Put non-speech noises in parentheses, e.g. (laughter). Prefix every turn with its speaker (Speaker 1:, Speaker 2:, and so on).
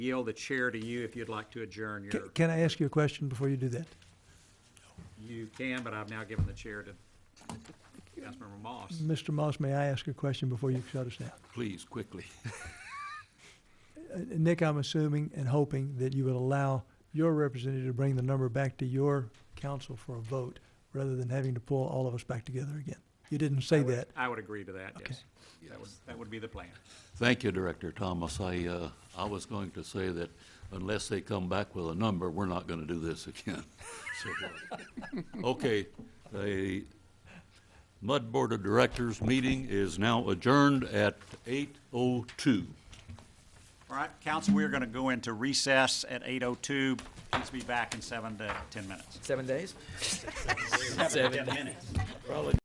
Speaker 1: yield the chair to you if you'd like to adjourn
Speaker 2: Ca-
Speaker 1: your,
Speaker 2: Can I ask you a question before you do that?
Speaker 1: you can, but I've now given the chair to Councilmember Moss.
Speaker 2: Mr. Moss, may I ask a question before you shut us down?
Speaker 3: Please, quickly. (laughs)
Speaker 2: Uh, Nick, I'm assuming and hoping that you would allow your representative to bring the number back to your council for a vote rather than having to pull all of us back together again. You didn't say
Speaker 1: I would-
Speaker 2: that.
Speaker 1: I would agree to that,
Speaker 2: Okay.
Speaker 1: yes. That would, that would be the plan.
Speaker 3: Thank you, Director Thomas. I, uh, I was going to say that unless they come back with a number, we're not gonna do this again. (laughs) So, uh, Okay, the Mud Board of Directors meeting is now adjourned at eight oh two.
Speaker 1: All right, council, we are going to go into recess at 8:02. Please be back in seven to 10 minutes.
Speaker 4: Seven days?
Speaker 1: Seven to 10 minutes.